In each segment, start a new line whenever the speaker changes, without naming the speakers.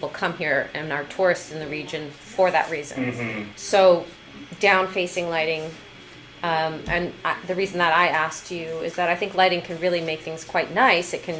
people come here and are tourists in the region for that reason.
Mm-hmm.
Mm-hmm.
So down facing lighting, um, and I, the reason that I asked you is that I think lighting can really make things quite nice. It can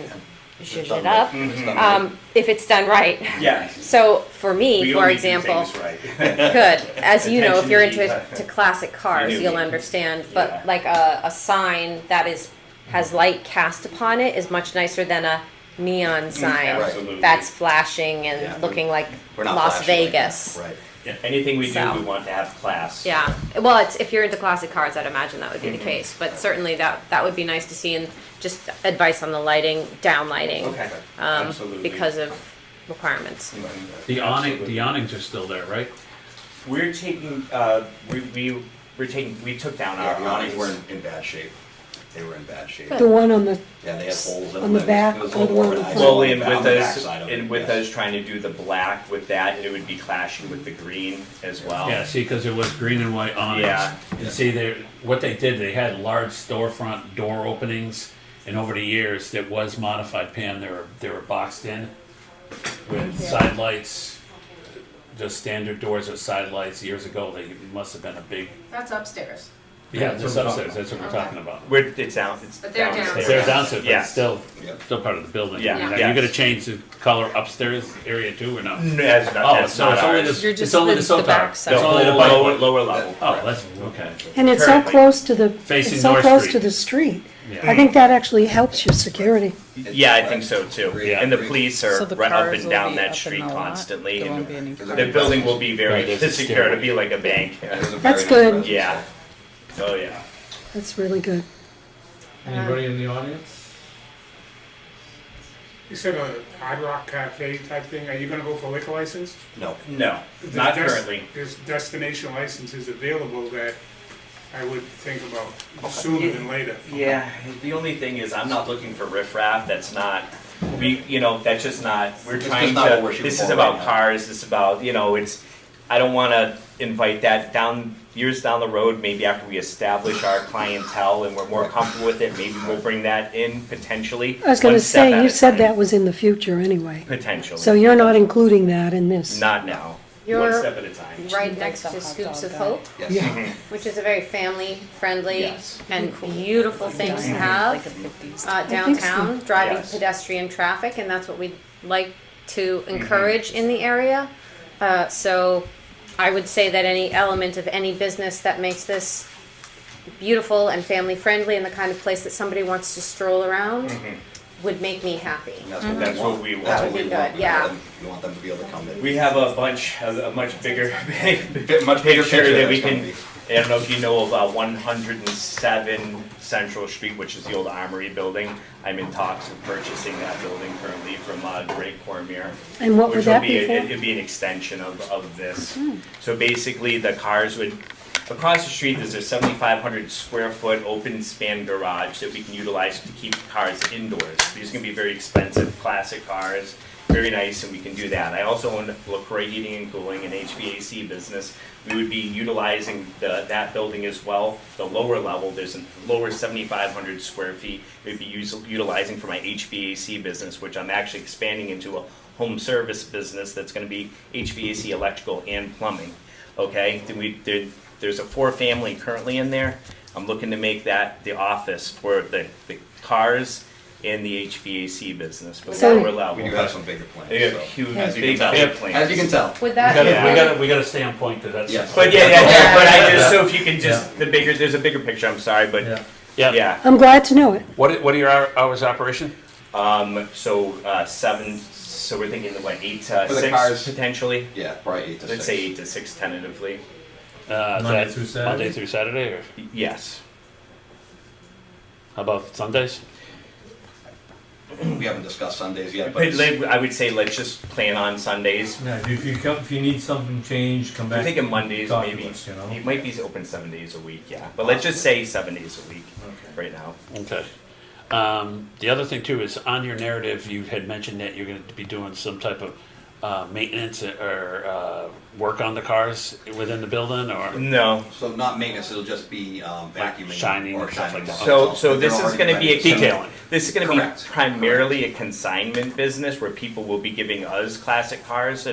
zhuzh it up um, if it's done right.
Yes.
So for me,
Mm-hmm. We
for
only do
example,
things right.
good as you know, if you're into
Attention to
to classic cars,
do.
you'll understand. But
Yeah.
like a, a sign that is has light cast upon it is much nicer than a
Mm,
neon sign
absolutely.
that's flashing and
Yeah.
looking like
We're not
Las
flashing like that.
Vegas.
Right.
Yeah, Anything we do,
So.
we want to have class.
Yeah. Well, it's if you're into classic cars, I'd imagine that would be
Mm-hmm.
the case. But certainly that that would be nice to see and just advice on the lighting, down lighting,
Okay.
um,
Absolutely.
because of requirements.
The awning,
Absolutely.
the awnings are still there, right?
We're taking, uh, we, we, we're taking, we took down
Yeah,
our
the awnings were
awnings.
in, in bad shape. They were in bad shape.
The one on the,
Yeah, they had holes in
On the
them.
back
It was a
or
little
the one on the
organized.
front?
Well, and
On
with
the
us,
backside of it,
and with
yes.
us trying to do the black with that, it would be clashing with the green as well.
Yeah, see, because there was green and white awnings.
Oh. Yeah.
And see, they, what they did, they had large storefront door openings, and over the years, that was modified, Pam, they were, they were boxed in with side lights, just standard doors with side lights. Years ago, they must have been a big,
That's upstairs.
yeah,
That's
just
what I'm
upstairs, that's what we're
Okay.
talking about.
We're, it's down, it's
But they're
downstairs.
Because They're downstairs, but
Yeah.
it's still,
Yeah.
still part of the building.
Yeah.
Now,
Yeah.
you gonna change the color upstairs area too, or not?
No, that's not,
Oh,
that's
so
not
it's only
ours.
the,
You're
it's
just
only
the-
the soap
the back
tower. It's
side.
The whole
only the bike
lower,
one.
lower level.
Oh, that's, okay.
and it's so
Currently.
close to the,
Facing
it's so
North
close
Street.
to the street.
Yeah.
Hmm.
I think that actually helps your security.
Yeah, I think so too.
Yeah.
And the police are
So the
run up
cars
and
will
down
be up
that
in
street
the lot.
constantly.
There
and
won't be any-
There's a
The
big
building
presence.
will be very
Right, there's a
secure. It'll be
stairway.
like a bank.
There's a very
That's
nice
good.
presence.
Yeah. Oh yeah.
That's really good.
Anybody in the audience?
You said a Hard Rock Cafe type thing, are you gonna go for liquor license?
No.
No, not
There's des-
currently.
There's destination licenses available that I would think about sooner than later.
Yeah. The only thing is, I'm not looking for riffraff. That's not. We, you know, that's just not. We're
It's
trying
just not what we're
to.
shooting
This is
for
about
right now.
cars. This is about you know. It's. I don't want to invite that down years down the road. Maybe after we establish our clientele and we're more comfortable with it, maybe we'll bring that in potentially.
I was gonna
one step at
say, you
a
said
time.
that was in the future anyway.
Potentially.
So you're not including that in this.
Not now. One
You're-
step at a time.
Right
Like
next
the
to
hot
Scoops
dog
of
guy.
Hope.
Yes.
Yeah,
which is a very family-friendly
Yes.
and beautiful thing to
Like a
have
50s.
uh,
think so.
downtown, driving
Yes.
pedestrian traffic, and that's what we'd like to
Mm-hmm.
encourage in the area. Uh, so, I would say that any element of any business that makes this beautiful and family-friendly and the kind of place that somebody wants to stroll around
Mm-hmm.
would make me happy.
And that's what
That's
we
what
want.
we want.
That's what
That'd
we
be
want.
good,
We want
yeah.
them- We want them to be able to come in.
We have a bunch, a, a much bigger,
Bit much bigger picture
that we
that's
can.
gonna
I don't know if you know of uh, 107 Central Street, which is the old Armory building. I'm in talks of purchasing that building currently from uh, Drake Cormier.
And what
which
would
will
that
be
be
a-
for? Hmm.
It'd be an extension of, of this. So basically, the cars would, across the street, there's a 7,500 square foot open span garage that we can utilize to keep cars indoors. These are gonna be very expensive, classic cars, very nice, and we can do that. I also own LaCroix Heating and Cooling, an HVAC business. We would be utilizing the, that building as well. The lower level, there's a lower 7,500 square feet. We'd be us- utilizing for my HVAC business, which I'm actually expanding into a home service business that's gonna be HVAC, electrical, and plumbing, okay? Then we, there, there's a four-family currently in there. I'm looking to make that the office for the, the cars and the HVAC business for
So-
lower
be. We
level.
do have some bigger plans.
They have
so.
huge,
As you can
big,
tell.
big
As you can
plans.
tell.
Would
We gotta,
that?
Yeah.
we gotta, we gotta stay on point, cause that's.
Yes.
But yeah, yeah, yeah, but I just, so if you can just, the bigger, there's a bigger picture, I'm sorry, but,
Yeah,
yeah.
I'm glad to know it.
what, are- what are your hour-
oh,
hours of operation?
Um, so, uh, seven, so we're thinking, what, eight to
For the cars.
six potentially?
Yeah, probably eight to six.
Let's say eight to six tentatively,
Uh,
Monday
that-
through Saturday?
Monday through Saturday, or
Y- yes.
how about Sundays?
We haven't discussed Sundays yet, but
But
it's-
like, I would say let's just plan on Sundays.
Yeah, if you come, if you need something changed, come back.
I'm thinking Mondays
talk to
maybe.
us, you know?
It might be open seven days a week, yeah. But let's just say seven days a week right now.
Okay. Um, the other thing too is on your narrative, you had mentioned that you're gonna be doing some type of uh, maintenance or uh, work on the cars within the building or?
No.
So not maintenance, it'll just be um, vacuuming.
shining
or
and stuff like
shining
that.
stuff.
So, so
they're
this is
already
gonna be a.
vacuumed.
Detailing.
This is gonna be
Correct.
primarily a consignment business where people will be giving us classic cars